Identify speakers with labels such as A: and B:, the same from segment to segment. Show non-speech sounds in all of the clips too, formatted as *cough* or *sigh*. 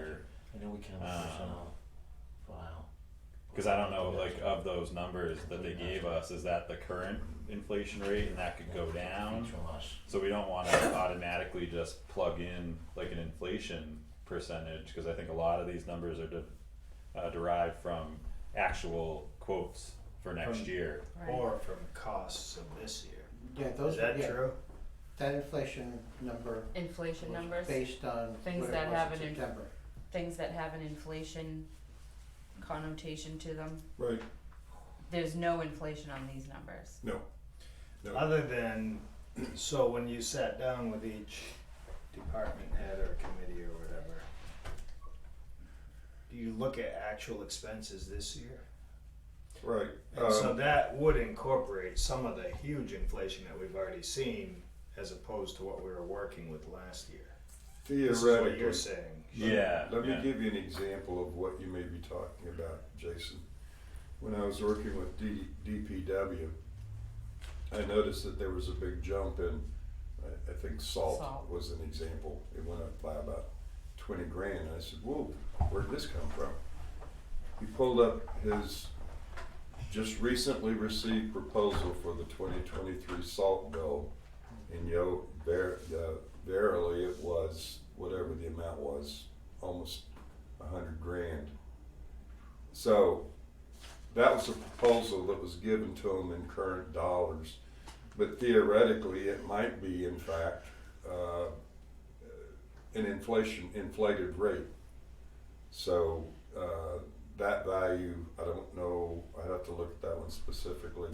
A: I know we can have a
B: Um,
A: personnel file.
B: Cause I don't know, like of those numbers that they gave us, is that the current inflation rate and that could go down?
A: From us.
B: So we don't wanna automatically just plug in like an inflation percentage, cause I think a lot of these numbers are de- uh derived from actual quotes for next
C: From-
B: year.
D: right,
C: or from costs of this year.
E: Yeah,
C: Is
E: those,
C: that
E: yeah,
C: true?
E: that inflation number
D: inflation
E: was
D: numbers,
E: based on what it
D: Things
E: was
D: that have
E: in
D: an in-
E: September,
D: things that have an inflation connotation to them,
F: Right,
D: there's no inflation on these numbers.
F: no. No.
C: Other than, so when you sat down with each department head or committee or whatever, do you look at actual expenses this year?
F: right.
C: And so
F: um,
C: that would incorporate some of the huge inflation that we've already seen as opposed to what we were working with last year. This is what you're
F: theoretically,
C: saying.
B: Yeah,
F: Let me
B: yeah.
F: give you an example of what you may be talking about, Jason. When I was working with D, DPW, I noticed that there was a big jump in, I, I think salt
D: Salt.
F: was an example. It went up by about twenty grand. I said, whoa, where'd this come from? He pulled up his just recently received proposal for the twenty twenty-three salt bill. And yo, ver- uh, verily it was, whatever the amount was, almost a hundred grand. So that was a proposal that was given to them in current dollars. But theoretically, it might be in fact, uh, an inflation, inflated rate. So, uh, that value, I don't know, I'd have to look at that one specifically,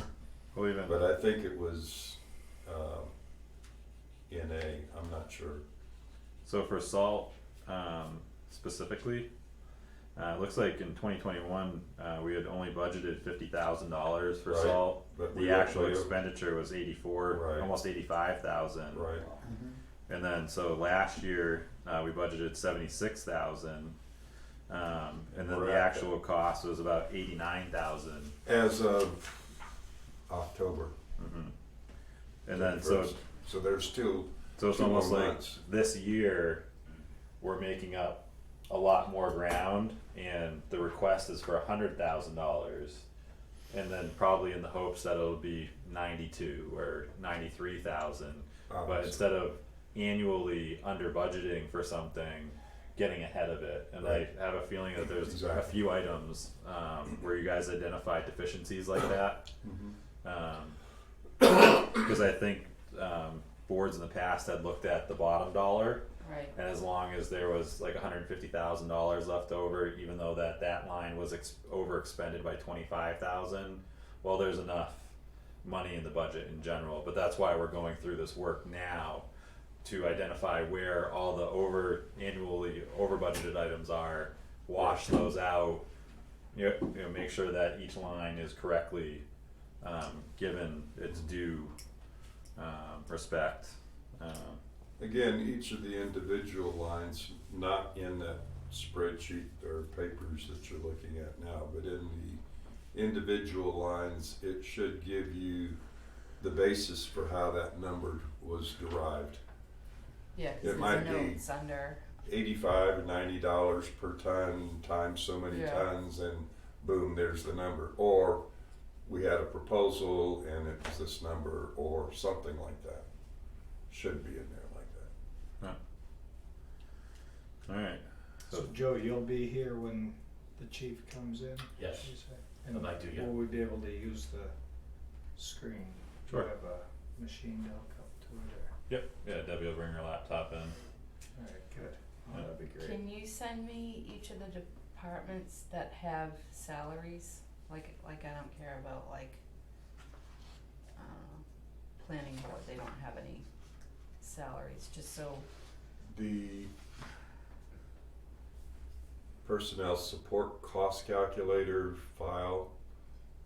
B: Well, even
F: but I think it was, um, in a, I'm not sure.
B: So for salt, um, specifically, uh, it looks like in twenty twenty-one, uh, we had only budgeted fifty thousand dollars for
F: Right.
B: salt.
F: But we
B: The actual
F: we-
B: expenditure was eighty-four,
F: Right.
B: almost eighty-five thousand.
F: Right,
E: Mm-hmm.
B: And then, so last year, uh, we budgeted seventy-six thousand. Um, and then the
F: Correct.
B: actual cost was about eighty-nine thousand.
F: as of October.
B: And then, so
F: 31st. So there's still,
B: So it's
F: Two more
B: almost like
F: months.
B: this year, we're making up a lot more ground, and the request is for a hundred thousand dollars. And then probably in the hopes that it'll be ninety-two or ninety-three thousand, but
F: obviously,
B: instead of annually under budgeting for something, getting ahead of it. And I
F: Right.
B: have a feeling that there's a
F: Exactly.
B: few items, um, where you guys identified deficiencies like that. Um, *coughs* because I think, um, boards in the past had looked at the bottom dollar,
D: Right,
B: and as long as there was like hundred and fifty thousand dollars left over, even though that that line was ex- over expended by twenty-five thousand, well, there's enough money in the budget in general, but that's why we're going through this work now to identify where all the over, annually over budgeted items are, wash those out, you know, you know, make sure that each line is correctly, um, given its due, um, respect, um,
F: again, each of the individual lines, not in that spreadsheet or papers that you're looking at now, but in the individual lines, it should give you the basis for how that number was derived.
D: yeah, 'cause
F: It might
D: there's
F: be-
D: notes under,
F: eighty-five or ninety dollars per ton times so many
D: Yeah.
F: tons and boom there's the number or we had a proposal and it was this number or something like that should be in there like that
B: alright.
C: So Joe, you'll be here when the chief comes in?
A: Yes.
C: you say?
A: I'd like to, yeah.
C: Will we be able to use the screen? Do
B: Sure.
C: you have a machine that'll come to it or?
B: Yep. Yeah, Debbie will bring her laptop in.
C: Alright, good.
B: Yeah.
C: Well, that'd be great.
D: can you send me each of the departments that have salaries? Like, like I don't care about like, I don't know, planning board, they don't have any salaries, just so,
F: the personnel support cost calculator file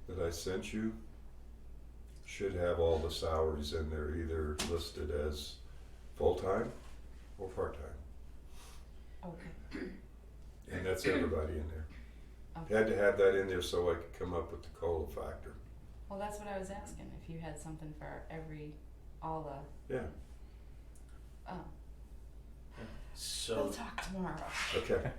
F: that i sent you should have all the salaries in there either listed as full-time or part-time
D: okay,
F: And that's everybody in there.
D: okay.
F: Had to have that in there so I could come up with the COLA factor.
D: Well, that's what I was asking, if you had something for every, all the,
F: Yeah,
D: oh,
A: So.
D: we'll talk tomorrow.
F: okay.